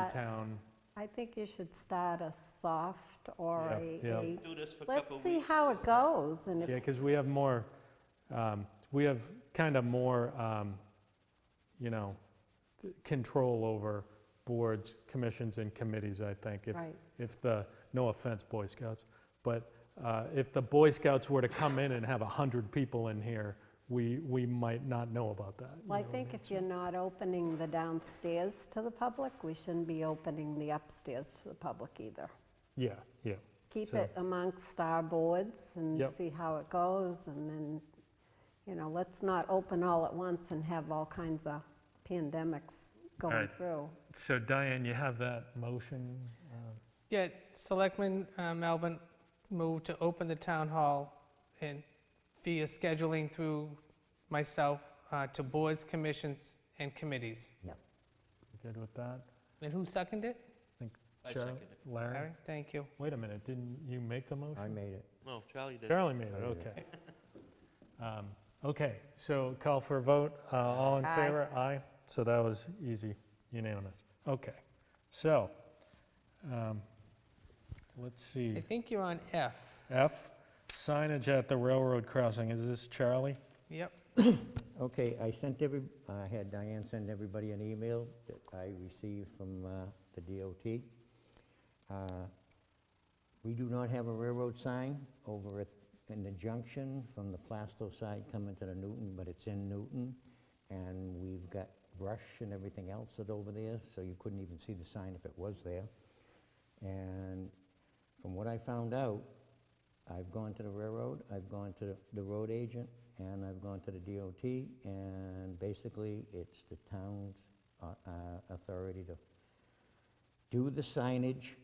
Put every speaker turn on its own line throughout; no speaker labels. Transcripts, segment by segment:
non-town,
I think you should start a soft or
Yeah,
a,
yeah.
a-
do this for a couple
let's
of
see
weeks.
how it goes, and
yeah,
if,
because we have more, um, we have kind of more, um, you know, th- control over boards, commissions, and committees, I think. if-
right,
If the, no offense, Boy Scouts, but uh, if the Boy Scouts were to come in and have 100 people in here, we, we might not know about that. you
well, I
know?
think if you're not opening the downstairs to the public, we shouldn't be opening the upstairs to the public either.
Yeah, yeah,
Keep
So-
it amongst our boards and
Yep.
see how it goes, and then, you know, let's not open all at once and have all kinds of pandemics going
right.
through.
so Diane, you have that motion? uh,
Yeah, Selectman uh, Melvin moved to open the town hall and via scheduling through myself uh, to boards, commissions, and committees.
Good with that?
And who seconded it?
I
Charlie?
second it.
Larry?
Larry, thank you.
Wait a minute, didn't you make the motion?
I made it.
No, Charlie did.
Charlie made it,
I did
okay. Um, Okay, so call for a vote, Uh, all in
Aye.
favor? Aye. So that was easy, unanimous. Okay, so, um, let's
I
see,
think you're on F.
F, signage at the railroad crossing, is this Charlie?
Yep,
Okay, I sent every, I had Diane send everybody an email that I received from uh, the DOT. Uh, We do not have a railroad sign over at, in the junction from the Plasto side coming to the Newton, but it's in Newton. And we've got brush and everything else that's over there, so you couldn't even see the sign if it was there. And from what I found out, I've gone to the railroad, I've gone to the road agent, and I've gone to the DOT, and basically, it's the town's uh, uh, authority to do the signage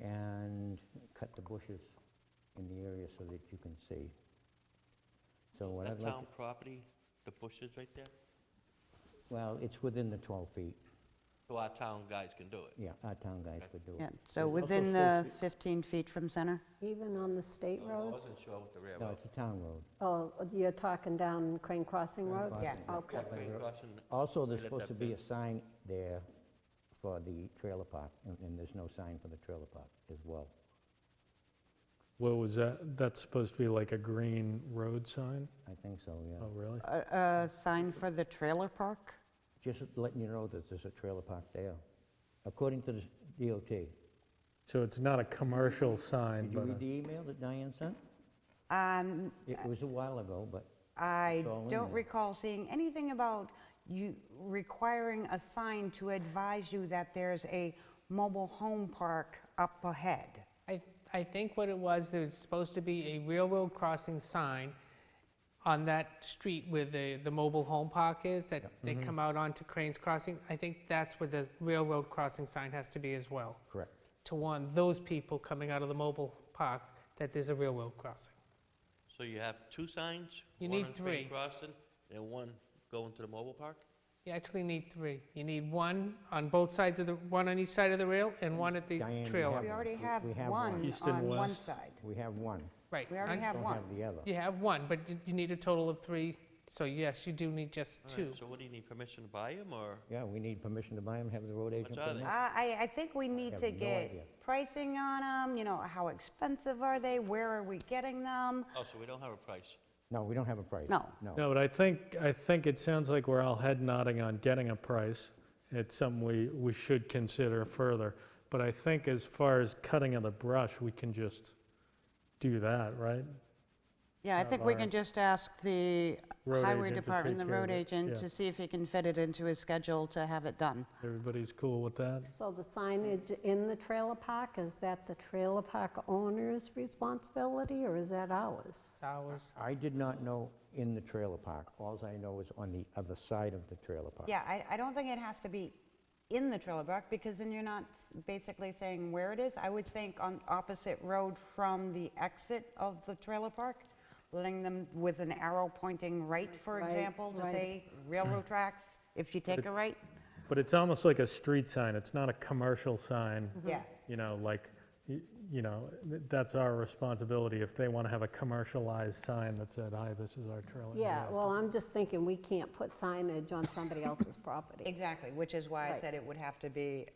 and cut the bushes in the area so that you can see. So what I'd
That
like,
town property, the bushes right there,
well, it's within the 12 feet,
so our town guys can do it.
yeah, our town guys could do
Yeah,
it.
so
There's also
within
supposed
the
to be-
15 feet from center?
Even on the state
Oh, No, I
road?
wasn't sure with the
No,
railroad.
it's a town road.
Oh, you're talking down Crane Crossing
Crane
Road?
Crossing, yeah.
Okay.
That Crane Crossing,
Also,
Is
there's
it
supposed
that
to be
big?
a sign there for the trailer park, and- and there's no sign for the trailer park as well.
What was that, that's supposed to be like a green road sign?
I think so, yeah.
Oh, really?
A a sign for the trailer park?
Just letting you know that there's a trailer park there, according to the s- DOT.
So it's not a commercial sign,
Did you
but
read
a-
the email that Diane sent?
Um,
It was a while ago, but
I
It's all in
don't
there.
recall seeing anything about you requiring a sign to advise you that there's a mobile home park up ahead.
I, I think what it was, there was supposed to be a railroad crossing sign on that street where the, the mobile home park is, that they come out onto Cranes Crossing. I think that's where the railroad crossing sign has to be as well,
correct.
to warn those people coming out of the mobile park that there's a railroad crossing.
so you have two signs?
You need
One on Crane
three.
Crossing and one going to the mobile park?
You actually need three. You need one on both sides of the, one on each side of the rail and one at the
Diane, we
trailer.
have
We already
We-
have
we have one.
one
East and
on one
west.
side.
We have one,
Right.
We already
and
have
don't
one.
have the other.
You have one, but you- you need a total of three, so yes, you do need just
All right,
two.
So what, do you need permission to buy them, or?
Yeah, we need permission to buy them, have the road agent put
are
'em
they?
Uh,
up.
I, I think we need
have
to
no idea.
get pricing on them, you know, how expensive are they, where are we getting them?
Oh, so we don't have a price.
No, we don't have a price.
No.
No, but I think, I think it sounds like we're all head nodding on getting a price. It's something we, we should consider further. But I think as far as cutting of the brush, we can just do that, right?
Yeah, I think we can
Laura.
just ask the
Road
highway
agent to
department,
take
the
care of
road
it,
agent,
yeah.
to see if he can fit it into his schedule to have it done.
Everybody's cool with that?
So the signage in the trailer park, is that the trailer park owner's responsibility, or is that ours?
Hours.
I did not know in the trailer park. Alls I know is on the other side of the trailer park.
Yeah, I, I don't think it has to be in the trailer park, because then you're not s- basically saying where it is. I would think on opposite road from the exit of the trailer park, letting them with an arrow pointing right, for
Right,
example, to
right.
say railroad tracks, if you take a right.
But it's almost like a street sign. It's not a commercial sign.
Mm-hmm.
Yeah.
You know, like, y- you know, th- that's our responsibility. If they want to have a commercialized sign that said, hi, this is our trailer. you
Yeah,
have to-
well, I'm just thinking, we can't put signage on somebody else's property.
Exactly, which is why I
Right.
said it would have to be